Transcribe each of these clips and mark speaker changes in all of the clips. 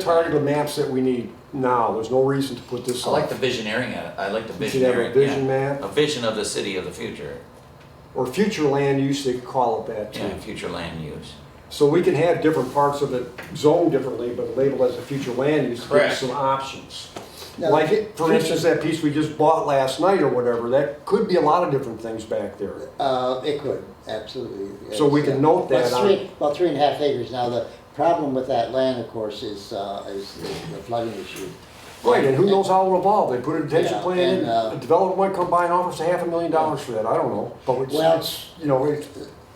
Speaker 1: target the maps that we need now. There's no reason to put this
Speaker 2: I
Speaker 1: on.
Speaker 2: like the visioneering at it. I like the
Speaker 1: We should have a
Speaker 2: visioneering.
Speaker 1: vision
Speaker 2: yeah.
Speaker 1: map
Speaker 2: A vision of the city of the future.
Speaker 1: or future land use, they could call it that
Speaker 2: Yeah,
Speaker 1: too.
Speaker 2: future land use.
Speaker 1: So we can have different parts of it zoned differently, but labeled as a future land use, to give
Speaker 2: Correct.
Speaker 1: us some options.
Speaker 3: Now,
Speaker 1: Like, it- for
Speaker 3: future-
Speaker 1: instance, that piece we just bought last night or whatever, that could be a lot of different things back there.
Speaker 3: Uh, it could, absolutely.
Speaker 1: So we can note that
Speaker 3: Well,
Speaker 1: on-
Speaker 3: three- Well, three and a half acres. Now, the problem with that land, of course, is, uh, is the the flooding issue.
Speaker 1: Right, and who knows how it'll evolve? They put a detention
Speaker 3: Yeah,
Speaker 1: plan
Speaker 3: and,
Speaker 1: in,
Speaker 3: uh,
Speaker 1: a developer might come by and offer us a half a million dollars for that, I don't know. But it's,
Speaker 3: Well-
Speaker 1: it's, you know, it's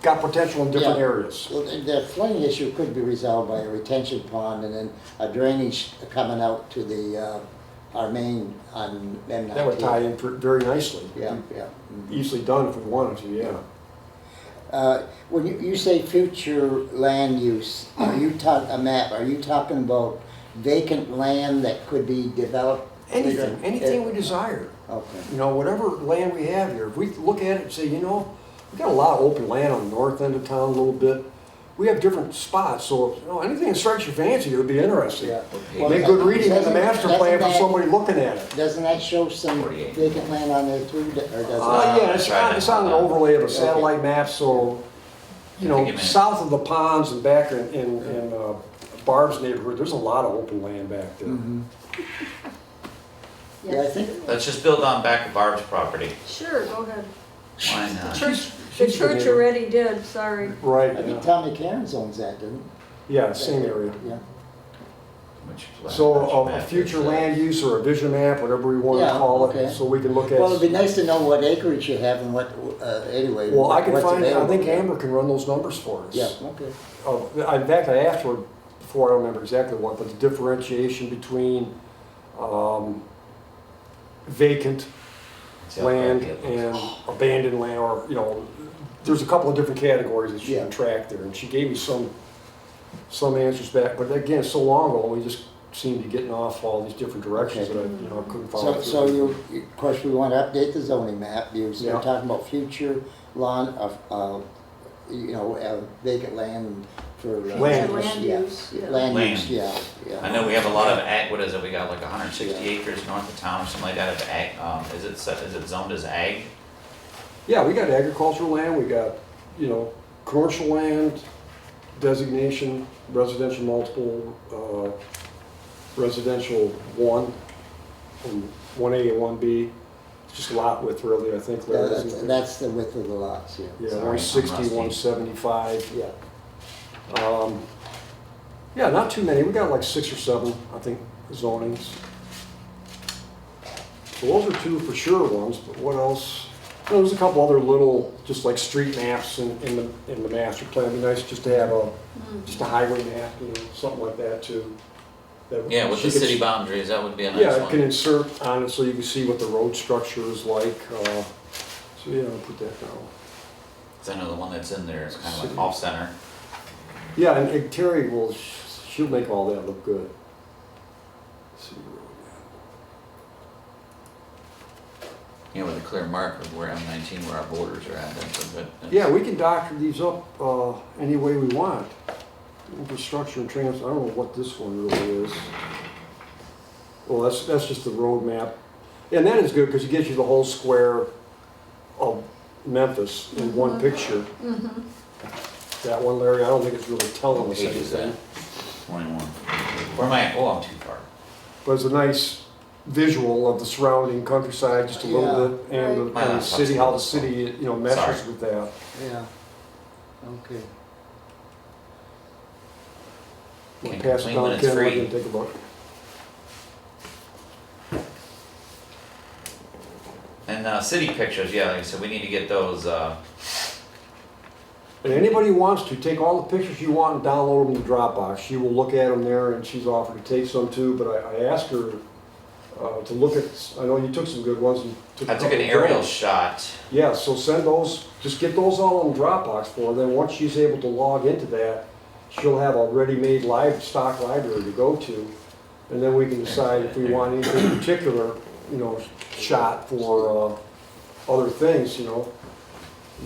Speaker 1: got potential in different
Speaker 3: Yeah.
Speaker 1: areas.
Speaker 3: Well, the- The flooding issue could be resolved by a retention pond and then a drainage coming out to the, uh, our main on M nineteen.
Speaker 1: That would tie in per- very nicely.
Speaker 3: Yeah, yeah.
Speaker 1: Easily done if we wanted to, yeah.
Speaker 3: Uh, When you, you say future land use, are you talking, a map, are you talking about vacant land that could be developed?
Speaker 1: Anything, anything we desire,
Speaker 3: Okay.
Speaker 1: you know, whatever land we have here, if we look at it and say, you know, we got a lot of open land on the north end of town a little bit. We have different spots, so, you know, anything that strikes your fancy would be interesting.
Speaker 3: Yeah.
Speaker 2: Well,
Speaker 1: Make good reading in the
Speaker 3: Doesn't-
Speaker 1: master
Speaker 3: doesn't
Speaker 1: plan for
Speaker 3: that-
Speaker 1: somebody looking at it.
Speaker 3: Doesn't that show some
Speaker 2: 48.
Speaker 3: vacant land on there too, d- or does
Speaker 1: Uh,
Speaker 2: Uh,
Speaker 1: yeah, it's
Speaker 2: try
Speaker 1: on,
Speaker 2: to-
Speaker 1: it's on an overlay of a
Speaker 3: Okay.
Speaker 1: satellite map, so, you
Speaker 2: Take a
Speaker 1: know,
Speaker 2: minute.
Speaker 1: south of the ponds and back in, in, in uh, Barb's neighborhood, there's a lot of open land back there.
Speaker 3: it? Yeah, I think,
Speaker 2: Let's just build on back of Barb's property.
Speaker 4: Sure, go ahead.
Speaker 2: Why
Speaker 4: The
Speaker 2: not?
Speaker 4: church, the
Speaker 1: she's been
Speaker 4: church
Speaker 1: here.
Speaker 4: already did, sorry.
Speaker 3: I
Speaker 1: Right,
Speaker 3: think
Speaker 1: yeah.
Speaker 3: Tommy Karen's owns that, doesn't
Speaker 1: yeah, same area.
Speaker 3: he? Yeah.
Speaker 2: Which flag-
Speaker 1: So uh,
Speaker 2: which
Speaker 1: a- a
Speaker 2: map is
Speaker 1: future
Speaker 2: that?
Speaker 1: land use or a vision map, whatever we want to
Speaker 3: Yeah,
Speaker 1: call
Speaker 3: okay.
Speaker 1: it, so we can look at.
Speaker 3: Well, it'd be nice to know what acreage you have and what, uh, anyway.
Speaker 1: Well, I can
Speaker 3: what's
Speaker 1: find, I
Speaker 3: available.
Speaker 1: think Amber can run those numbers for us.
Speaker 3: Yeah, okay.
Speaker 1: Oh, in fact, I asked her before, I don't remember exactly what, but the differentiation between um, vacant
Speaker 2: It's out
Speaker 1: land
Speaker 2: there, yeah.
Speaker 1: and abandoned land, or, you know, there's a couple of different categories that she
Speaker 3: Yeah.
Speaker 1: can track there, and she gave me some, some answers back, but again, so long ago, we just seemed to getting off all these different directions
Speaker 3: Okay.
Speaker 1: that I, you know, I couldn't follow.
Speaker 3: So, so
Speaker 1: through.
Speaker 3: you, you- of course, we want to update the zoning map, you're,
Speaker 1: Yeah.
Speaker 3: you're talking about future lawn of, uh, you know, uh, vacant land for. uh,
Speaker 1: Land use,
Speaker 4: Future land
Speaker 3: yeah.
Speaker 4: use, yeah.
Speaker 3: Land
Speaker 2: Land.
Speaker 3: use, yeah, yeah.
Speaker 2: I know we have a lot of ag, what is it, we got like hundred and sixty acres north of town, or something like that of ag, um, is it, set- is it zoned as ag?
Speaker 1: Yeah, we got agricultural land, we got, you know, commercial land designation, residential multiple, uh, residential one, and one A and one B. It's Just a lot width really, I think,
Speaker 3: Yeah,
Speaker 1: Larry,
Speaker 3: That's,
Speaker 1: isn't it?
Speaker 3: that's the width of the lots, yeah.
Speaker 1: Yeah,
Speaker 2: Sorry,
Speaker 1: one sixty,
Speaker 2: I'm
Speaker 1: one
Speaker 2: rusty.
Speaker 1: seventy-five.
Speaker 3: Yeah.
Speaker 1: Um, yeah, not too many. We got like six or seven, I think, zonings. So those are two for sure ones, but what else? You know, There's a couple other little, just like street maps in, in the, in the master plan. It'd be nice just to have a, just a highway map, you know, something like that too. That
Speaker 2: Yeah, with
Speaker 1: she
Speaker 2: the
Speaker 1: could-
Speaker 2: city boundaries, that would be a nice
Speaker 1: Yeah, I can
Speaker 2: one.
Speaker 1: insert on it so you can see what the road structure is like. Uh, so yeah, I'll put that down.
Speaker 2: 'Cause I know the one that's in there is kind of
Speaker 1: City.
Speaker 2: like off center.
Speaker 1: Yeah, and, and Terry will, she'll make all that look good. Let's see, where we
Speaker 2: you know, with a clear marker of where M nineteen, where our borders are at, that's a good.
Speaker 1: at. Yeah, we can doctor these up, uh, any way we want. Infrastructure and trans, I don't know what this one really is. Well, that's, that's just the road map. And that is good, because it gives you the whole square of Memphis in one picture. That one, Larry, I don't think it's really telling us
Speaker 2: Page is that?
Speaker 1: anything.
Speaker 2: Twenty-one. Where am I, oh, I'm too far.
Speaker 1: But it's a nice visual of the surrounding countryside, just a little
Speaker 3: Yeah.
Speaker 1: bit, and the, and
Speaker 2: Right.
Speaker 1: the city, how the city, you know, meshes
Speaker 2: Sorry.
Speaker 1: with that.
Speaker 3: Yeah, okay.
Speaker 1: We'll
Speaker 2: Can't
Speaker 1: pass it
Speaker 2: complain when
Speaker 1: down,
Speaker 2: it's
Speaker 1: Ken, let
Speaker 2: free.
Speaker 1: him take a look.
Speaker 2: And, uh, city pictures, yeah, like I said, we need to get those, uh,
Speaker 1: And anybody who wants to, take all the pictures you want and download them to Dropbox. She will look at them there, and she's offered to take some too, but I, I asked her, uh, to look at, I know you took some good ones and took a
Speaker 2: I took an
Speaker 1: couple
Speaker 2: aerial
Speaker 1: bad.
Speaker 2: shot.
Speaker 1: Yeah, so send those, just get those all on Dropbox for her, then once she's able to log into that, she'll have a ready-made livestock library to go to. And then we can decide if we want anything in particular, you know, shot for, uh, other things, you know.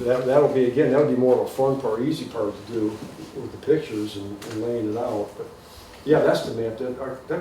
Speaker 1: That, that'll be, again, that'll be more of a fun part, easy part to do with the pictures and and laying it out, but Yeah, that's the map, that, our- that